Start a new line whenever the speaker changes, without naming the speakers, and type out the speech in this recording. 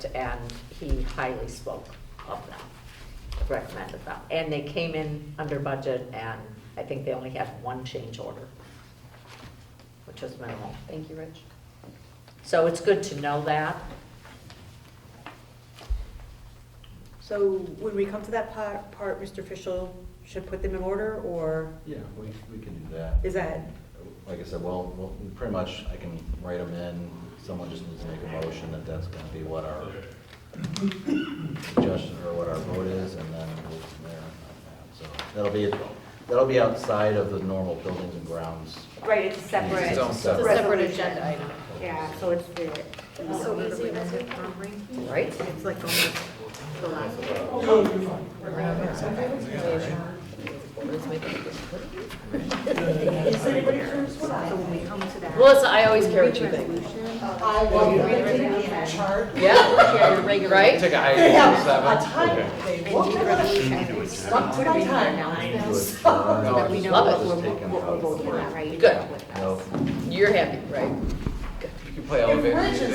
and he highly spoke of them, recommended them. And they came in under budget, and I think they only had one change order, which was minimal. Thank you, Rich. So it's good to know that.
So when we come to that part, part, Mr. Fischel should put them in order, or
Yeah, we, we can do that.
is that,
Like I said, well, well, pretty much I can write them in, someone just needs to make a motion that that's gonna be what our suggestion or what our vote is, and then we'll go from there on that. So that'll be, that'll be outside of the normal buildings and grounds.
Right, it's a separate.
It's its own
a
separate.
Separate agenda item. Yeah, so it's the.
So easy was it from ranking?
Right.
It's like almost the last. So when we come to that.
Melissa, I always carry two things.
Resolution.
I will read the chart.
Yeah, right?
Take a
They have
item
a
seven.
time, they won't give it a, stuck to the time.
So that we know
Love
what
it.
we're, what we're voting on, right?
Good.
With us.
No,
You're happy, right?
you can play all
If
of it.
Rich is